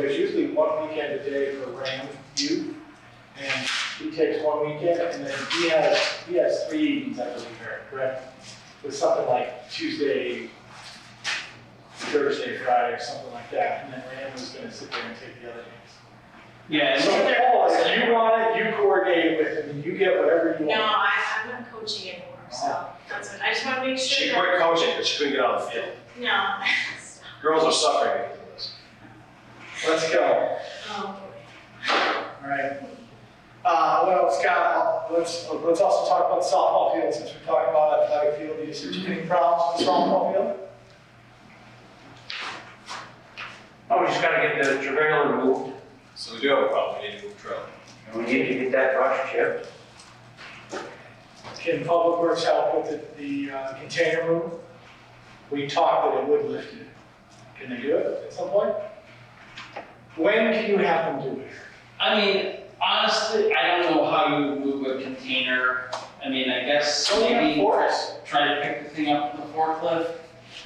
There's usually one weekend a day for Ram youth, and he takes one weekend, and then he has, he has three evenings, I believe, Eric, correct? It's something like Tuesday, Thursday, Friday, or something like that, and then Ram is gonna sit there and take the other days. Yeah, So, and- Paul, if you want it, you coordinate it with him, and you get whatever you No, want. I, I'm not coaching anymore, so that's what, I just wanna make She sure quit that, coaching because she couldn't get on the field. no. Girls are suffering because of this. Let's go, Oh, alright. Uh, well, Scott, let's, let's also talk about the softball field, since we're talking about athletic field usage, any problems with the softball field? oh, we just gotta get the Dragola removed, So we do have a problem, we need to move drill. and we need to get that brush chipped. Can Public Works help with the, the uh, container room? We talked that it would lift it. Can they do it at some point? When can you have them do it? I mean, honestly, I don't know how you move a container, I mean, I guess Don't we have maybe forks? try to pick the thing up with the forklift.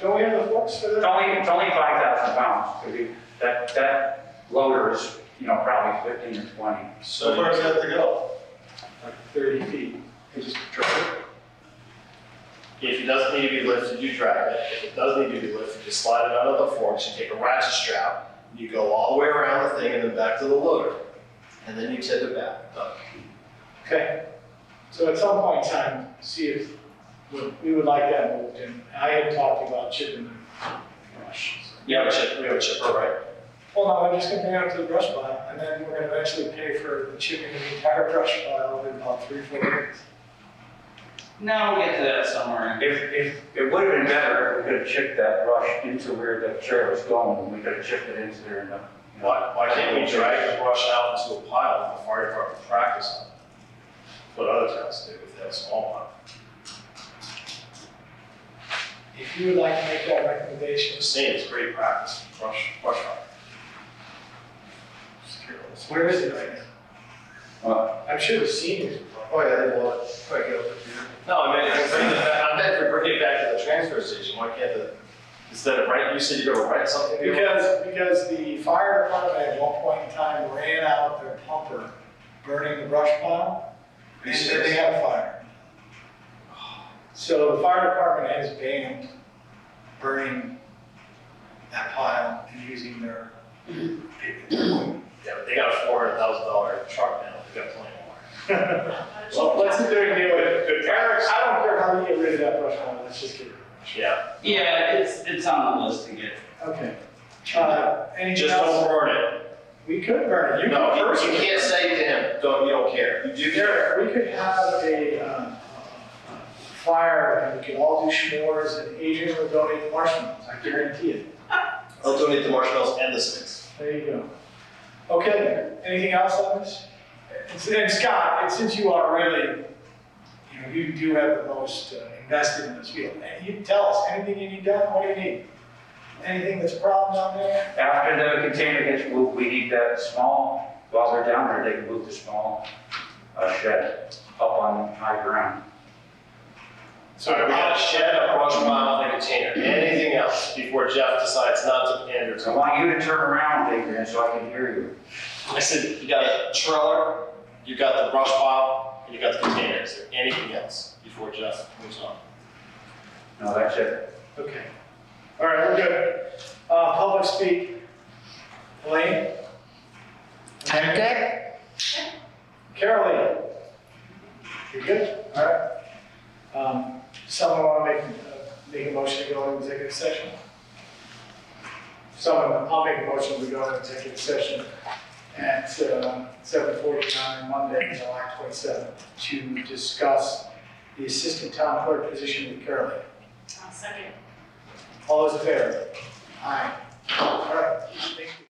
Don't we have the forks for It's that? only, it's only five thousand pounds, so we- that, that loader is, you know, probably fifteen or twenty. So where's that to go? Like thirty feet. Just drive it. If it doesn't need to be lifted, you drive it. If it does need to be lifted, you slide it out of the forks, you take a ratchet strap, you go all the way around the thing and then back to the loader. And then you tip it back. Done. Okay. So at some point in time, see if, we- we would like that moved in. I had talked about chipping the brush. We have a chip, we have a chipper, right? Well, no, I'm just gonna bring it up to the brush pile, and then we're gonna eventually pay for chipping the entire brush pile in about three, four days. Now we'll get to that somewhere. If, if, it would have been better if we could have chipped that brush into where the chair was going, and we could have chipped it into there and, uh, you know. Why, why can't we drag the brush out into a pile and the fire department practice on it? What other towns do if they have a small one? If you would like to make that recommendation, Just saying, it's great practice, brush, brush fire. Just curious. where is it right now? What? I'm sure the seniors. Oh, yeah, they will. No, I meant, I meant, I meant if we bring it back to the transfer station, why can't the, instead of rent, you said you're gonna rent something? to- Because, because the fire department at one point in time ran out their pumper, burning the brush pile, and then they had a fire. So the fire department has banned burning that pile and using their. Yeah, but they got a four hundred thousand dollar truck now, they got plenty more. Well, let's Uh, do it anyway. Eric, I don't care how you get rid of that brush pile, let's just get rid of Yeah, Yeah, it's, it's on the list to get. it. Okay. Uh, anything just don't else? burn it. We could burn it. You No, could you burn you it. can't say to him, don't, you don't care. You do care. Derek, we could have a um, fire and we could all do s'mores and Adrian would donate marshmallows, I guarantee it. I'll donate the marshmallows and the sticks. There you go. Okay, anything else on this? And- And Scott, and since you are really, you know, you do have the most uh, invested in this field, and you tell us anything you need done, what do you need? Anything that's a problem down there? After the container gets moved, we need that small, while they're down there, they can move the small uh, shed up on high ground. So we got a shed, a brush pile, and a container. Anything else before Jeff decides not to pander to I want you to turn around, Adrian, so I can hear you. I said, you got a trailer, you got the brush pile, and you got the container. Is there anything else before Jeff moves on? No, that's it. Okay. All right, we're good. Uh, Public speak. Elaine? I'm good. Carolee? You're good? All right. Um, Someone want to make, uh, make a motion to go into executive session? Someone, I'll make a motion to go into executive session at uh, seven forty-nine, Monday, July twenty-seventh, to discuss the assistant town clerk position with Carolee. I'll second. All those in favor? Aye. All right, thank you.